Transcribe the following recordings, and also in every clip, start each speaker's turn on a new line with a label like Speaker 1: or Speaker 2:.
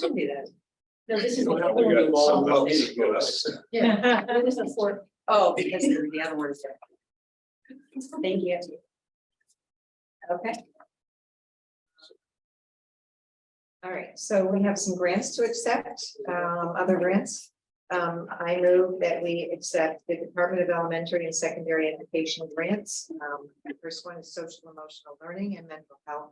Speaker 1: Should be that. No, this is.
Speaker 2: We
Speaker 1: the
Speaker 2: got
Speaker 1: other one.
Speaker 2: some votes to go us.
Speaker 1: Yeah, this is the fourth. Oh, because the other one is there. Thank you. Okay.
Speaker 3: All right, so we have some grants to accept, um, other grants. Um, I move that we accept the Department of Elementary and Secondary Education grants. Um, the first one is social emotional learning and mental health.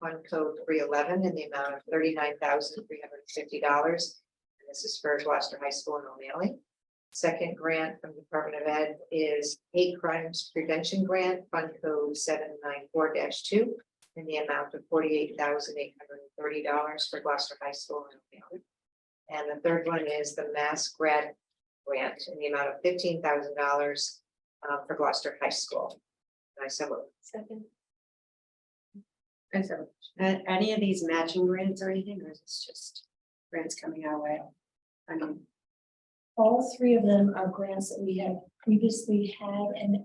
Speaker 3: On code three eleven in the amount of thirty-nine thousand three hundred and fifty dollars. And This is for Gloucester High School in O'Malley. Second grant from the Department of Ed is hate crimes prevention grant, fund code seven nine four two in the amount of forty-eight thousand eight hundred and thirty dollars for Gloucester High School. in O'Malley. And the third one is the Mass Grad Grant in the amount of fifteen thousand dollars uh, for Gloucester High School. And I so moved.
Speaker 1: Second.
Speaker 4: And so, uh, any of these matching grants or anything, or is this just grants coming our way? I mean,
Speaker 5: All three of them are grants that we have previously had and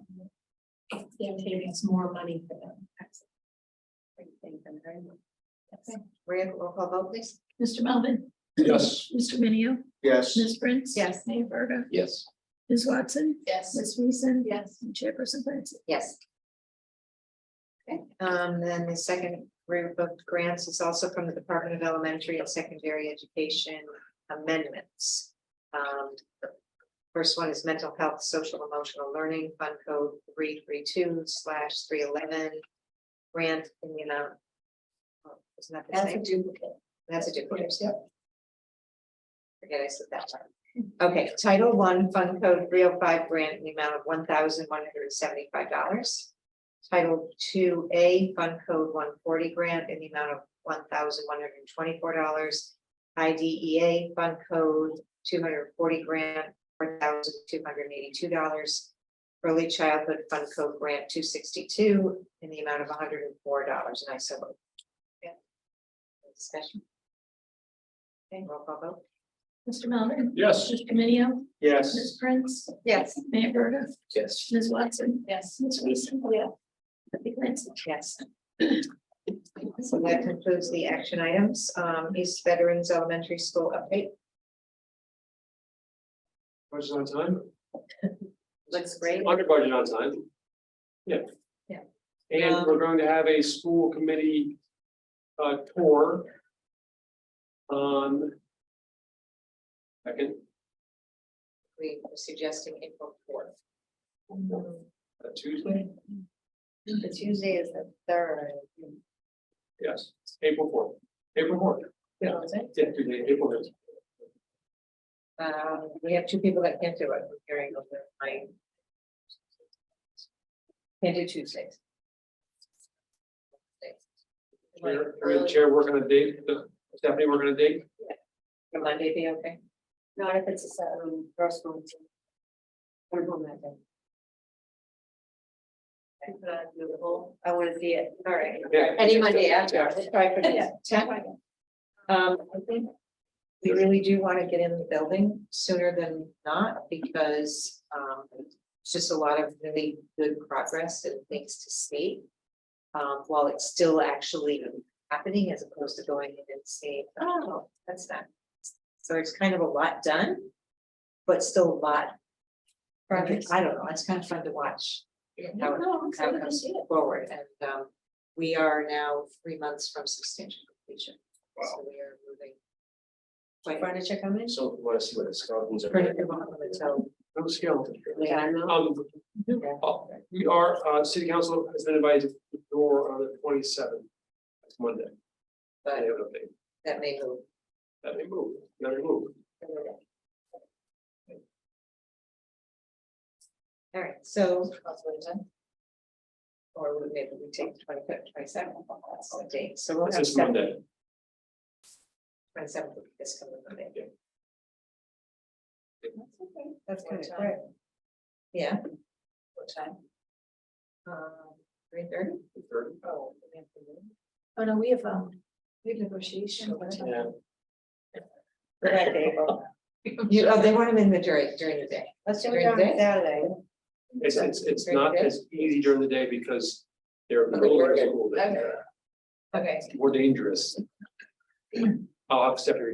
Speaker 5: they're giving us more money for them.
Speaker 4: I thank them very much.
Speaker 3: Maria, roll call vote please.
Speaker 6: Mr. Melvin,
Speaker 2: Yes.
Speaker 6: Mr. Minio,
Speaker 2: Yes.
Speaker 6: Ms. Prince.
Speaker 3: Yes.
Speaker 6: Mayor Verda,
Speaker 2: Yes.
Speaker 6: Ms. Watson,
Speaker 5: Yes.
Speaker 6: Ms. Weason.
Speaker 5: Yes.
Speaker 6: and Chairperson Clancy.
Speaker 3: Yes. Okay, um, then the second group of grants is also from the Department of Elementary and Secondary Education amendments. Um, the First one is mental health, social emotional learning, fund code three three two slash three eleven. Grant in the amount. oh, Isn't that the
Speaker 5: That's a
Speaker 3: same?
Speaker 5: duplicate.
Speaker 3: That's a duplicate. Forget I said that one. Okay, Title One, Fund Code three oh five grant in the amount of one thousand one hundred and seventy-five dollars. Title Two A, Fund Code one forty grant in the amount of one thousand one hundred and twenty-four dollars. IDEA Fund Code two hundred and forty grant, four thousand two hundred and eighty-two dollars. Early Childhood Fund Code Grant two sixty-two in the amount of hundred and four dollars, and I so moved. Yeah. Any Discussion. Okay, roll call vote.
Speaker 6: Mr. Melvin,
Speaker 2: Yes.
Speaker 6: Mr. Minio,
Speaker 2: Yes.
Speaker 6: Ms. Prince,
Speaker 3: Yes.
Speaker 6: Mayor Verda,
Speaker 2: Yes.
Speaker 6: Ms. Watson,
Speaker 5: Yes.
Speaker 6: Ms. Weason.
Speaker 5: Yeah.
Speaker 6: Kathy Clancy.
Speaker 3: Yes. So that concludes the action items, um, East Veterans Elementary School update.
Speaker 2: Budget on time?
Speaker 3: Looks great.
Speaker 2: Under budget on time. Yeah.
Speaker 3: Yeah. Um,
Speaker 2: And we're going to have a school committee uh tour. On. Second,
Speaker 3: We were suggesting April fourth.
Speaker 2: uh, Tuesday,
Speaker 3: The Tuesday is the third.
Speaker 2: yes, April fourth, April fourth, Yeah. yeah, Tuesday, April fifth.
Speaker 3: Um, we have two people that can't do it, we're hearing over my. Can't do Tuesdays.
Speaker 2: Chair, or the chair working on a date, the- Stephanie working on a date,
Speaker 3: Will Monday be okay?
Speaker 4: Not if it's a certain personal. We're home that day.
Speaker 3: I wanna see it, all right.
Speaker 2: yeah.
Speaker 3: Any Monday after, let's try for the tenth. Um, I think we really do want to get in the building sooner than not because, um, it's just a lot of really good progress and things to see. Um, while it's still actually happening as opposed to going in and seeing, oh, that's done. So it's kind of a lot done, but still a lot.
Speaker 5: Progress.
Speaker 3: I don't know, it's kind of fun to watch. How it
Speaker 5: No, I'm
Speaker 3: how
Speaker 5: sorry,
Speaker 3: it
Speaker 5: I
Speaker 3: comes
Speaker 5: see it.
Speaker 3: forward and um we are now three months from substantial completion. So we are moving. Quite
Speaker 4: Furniture coming?
Speaker 2: So want to see what the skeletons
Speaker 3: pretty quickly, so
Speaker 2: No skeleton.
Speaker 3: we are now.
Speaker 2: Um, oh, we are, uh, city council has been invited to the door on the twenty seventh. That's Monday. They
Speaker 3: But
Speaker 2: have an update.
Speaker 3: that may move.
Speaker 2: That may move, that may move.
Speaker 3: All right, so. Or we- maybe we take the twenty fifth, twenty seventh, that's the date, so we'll
Speaker 2: It's
Speaker 3: have
Speaker 2: this
Speaker 3: seven.
Speaker 2: Monday.
Speaker 3: Twenty seventh, this coming Monday.
Speaker 2: Yeah.
Speaker 3: That's okay, that's
Speaker 4: What
Speaker 3: good,
Speaker 4: time?
Speaker 3: all right. Yeah. What time? Um, three thirty?
Speaker 2: Third.
Speaker 3: Oh, in the afternoon.
Speaker 5: Oh, no, we have, um, we have negotiation.
Speaker 2: Yeah.
Speaker 3: You, oh, they want them in the during, during the day. Let's
Speaker 4: do it during
Speaker 3: Saturday.
Speaker 2: It's, it's, it's not as easy during the day because they're.
Speaker 3: Okay.
Speaker 2: middle of school day.
Speaker 3: Okay,
Speaker 2: It's More dangerous. I'll have Stephanie